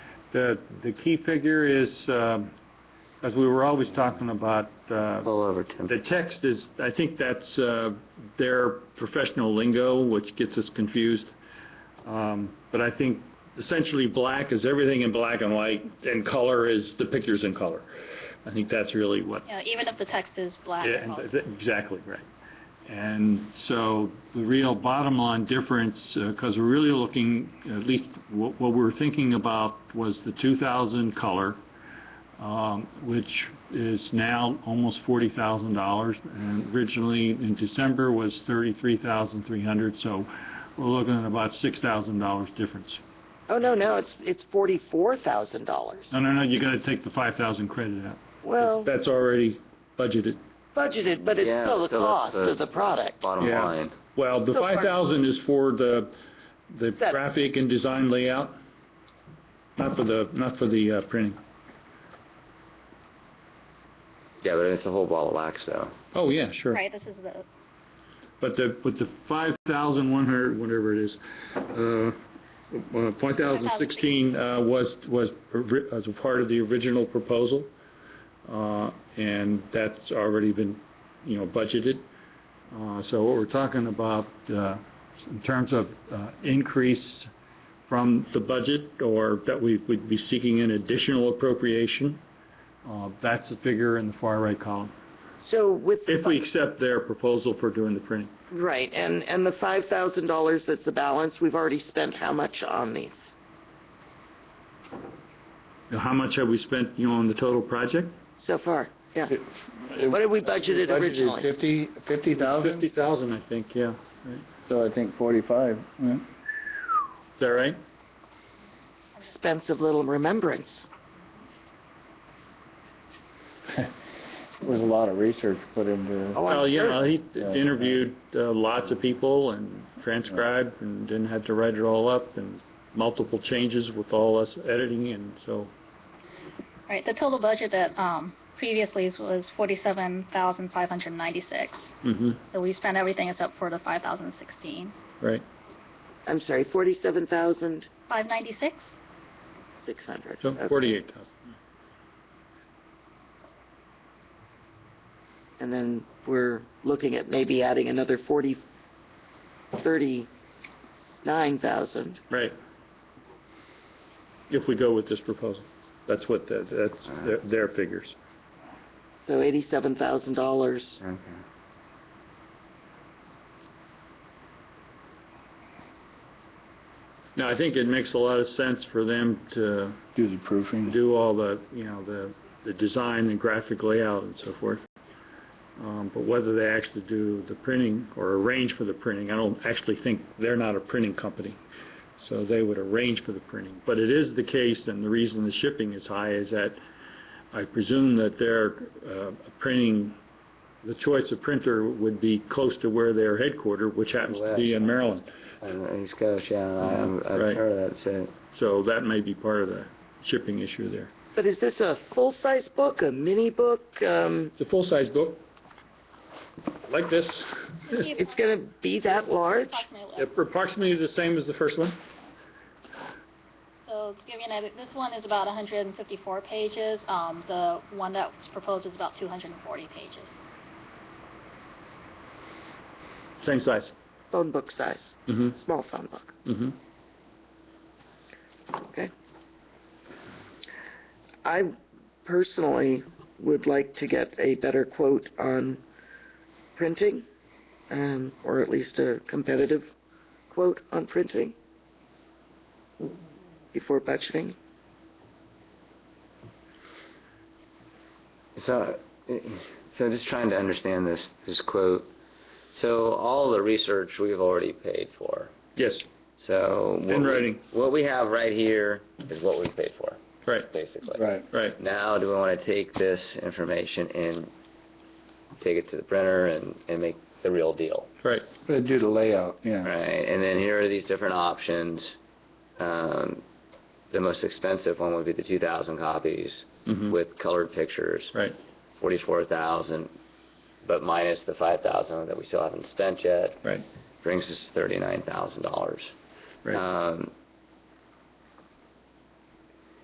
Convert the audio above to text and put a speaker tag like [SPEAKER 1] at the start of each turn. [SPEAKER 1] the, the key figure is, um, as we were always talking about, uh,
[SPEAKER 2] All over ten.
[SPEAKER 1] the text is, I think that's, uh, their professional lingo, which gets us confused. Um, but I think essentially black is everything in black and white, and color is the pictures in color. I think that's really what
[SPEAKER 3] You know, even if the text is black.
[SPEAKER 1] yeah,
[SPEAKER 3] well,
[SPEAKER 1] and th- Exactly, right. And so the real bottom line difference, because we're really looking, at least what what we're thinking about was the 2000 color, um, which is now almost $40,000. And originally in December was 33,300, so we're looking at about $6,000 difference.
[SPEAKER 2] Oh, no, no, it's, it's forty-four thousand dollars.
[SPEAKER 1] No, no, no, you got to take the 5,000 credit out.
[SPEAKER 2] Well,
[SPEAKER 1] That's already budgeted.
[SPEAKER 2] budgeted, but it's
[SPEAKER 4] Yeah,
[SPEAKER 2] still the
[SPEAKER 4] still that's
[SPEAKER 2] cost
[SPEAKER 4] the-
[SPEAKER 2] of the product.
[SPEAKER 4] Bottom
[SPEAKER 1] Yeah.
[SPEAKER 4] line.
[SPEAKER 1] Well, the
[SPEAKER 2] So far-
[SPEAKER 1] 5,000 is for the, the
[SPEAKER 2] That-
[SPEAKER 1] graphic and design layout, not for the, not for the uh, printing.
[SPEAKER 4] Yeah, but it's a whole ball of wax though.
[SPEAKER 1] Oh, yeah, sure.
[SPEAKER 3] Right, this is the,
[SPEAKER 1] But the, but the 5,100, whatever it is, uh, uh, 5,016 uh, was, was, ori- as a part of the original proposal, uh, and that's already been, you know, budgeted. Uh, So what we're talking about uh, in terms of uh, increase from the budget, or that we would be seeking an additional appropriation, uh, that's the figure in the far right column,
[SPEAKER 2] So with the.
[SPEAKER 1] if we accept their proposal for doing the printing.
[SPEAKER 2] fi- Right, and, and the five thousand dollars that's the balance, we've already spent how much on these?
[SPEAKER 1] Now, How much have we spent, you know, on the total project?
[SPEAKER 2] So far, yeah.
[SPEAKER 5] It-
[SPEAKER 2] What had we budgeted
[SPEAKER 5] budgeted
[SPEAKER 2] originally?
[SPEAKER 5] Fifty, fifty thousand,
[SPEAKER 1] Fifty thousand, I think, yeah. Is
[SPEAKER 5] so I think forty-five, yeah.
[SPEAKER 1] that right?
[SPEAKER 2] Expensive little remembrance.
[SPEAKER 5] There was a lot of research put into,
[SPEAKER 2] Oh, I'm
[SPEAKER 1] Well,
[SPEAKER 2] sure.
[SPEAKER 1] yeah, he
[SPEAKER 5] Yeah.
[SPEAKER 1] interviewed uh, lots of people and transcribed and then had to write it all up and multiple changes with all us editing and so.
[SPEAKER 3] right, the total budget that, um, previously was forty-seven thousand five hundred ninety-six.
[SPEAKER 1] Mm-hmm.
[SPEAKER 3] So we spent everything except for the five thousand sixteen.
[SPEAKER 1] Right.
[SPEAKER 2] I'm sorry, forty-seven thousand
[SPEAKER 3] Five ninety-six?
[SPEAKER 2] six hundred.
[SPEAKER 1] So forty-eight thousand.
[SPEAKER 2] And then we're looking at maybe adding another forty, thirty-nine thousand.
[SPEAKER 1] Right. If we go with this proposal, that's what the, that's their, their figures.
[SPEAKER 2] So eighty-seven thousand dollars.
[SPEAKER 4] Okay.
[SPEAKER 1] Now, I think it makes a lot of sense for them to
[SPEAKER 5] do the proofing.
[SPEAKER 1] do all the, you know, the, the design and graphic layout and so forth. Um, but whether they actually do the printing or arrange for the printing, I don't actually think, they're not a printing company. So they would arrange for the printing. But it is the case, and the reason the shipping is high is that I presume that their, uh, printing, the choice of printer would be close to where they're headquartered, which happens to be in Maryland.
[SPEAKER 4] And East Coast, yeah, I, I'm, I've
[SPEAKER 1] Right.
[SPEAKER 4] heard of that. So
[SPEAKER 1] So that may be part of the shipping issue there.
[SPEAKER 2] But is this a full-size book, a mini book? Um,
[SPEAKER 1] It's a full-size book, like this,
[SPEAKER 2] it's going to be that large?
[SPEAKER 3] Approximately.
[SPEAKER 1] approximately the same as the first one.
[SPEAKER 3] So to give you an idea, this one is about hundred and fifty-four pages. Um, the one that was proposed is about two hundred and forty pages.
[SPEAKER 1] Same size.
[SPEAKER 2] Phone book size,
[SPEAKER 1] Mm-hmm,
[SPEAKER 2] small phone book.
[SPEAKER 1] mm-hmm.
[SPEAKER 2] I personally would like to get a better quote on printing, um, or at least a competitive quote on printing before budgeting.
[SPEAKER 4] So, so just trying to understand this this quote. So all the research we've already paid for.
[SPEAKER 1] Yes,
[SPEAKER 4] So what
[SPEAKER 1] In
[SPEAKER 4] we-
[SPEAKER 1] writing.
[SPEAKER 4] what we have right here is what we paid for,
[SPEAKER 1] right,
[SPEAKER 4] basically.
[SPEAKER 5] Right,
[SPEAKER 1] right.
[SPEAKER 4] Now, do we want to take this information and take it to the printer and and make the real deal,
[SPEAKER 5] but do the layout, yeah.
[SPEAKER 4] right? And then here are these different options. Um, the most expensive one would be the 2,000 copies
[SPEAKER 1] Mm-hmm.
[SPEAKER 4] with colored pictures.
[SPEAKER 1] Right,
[SPEAKER 4] 44,000, but minus the 5,000 that we still haven't spent yet,
[SPEAKER 1] right,
[SPEAKER 4] brings us to $39,000.
[SPEAKER 1] right.
[SPEAKER 4] Um,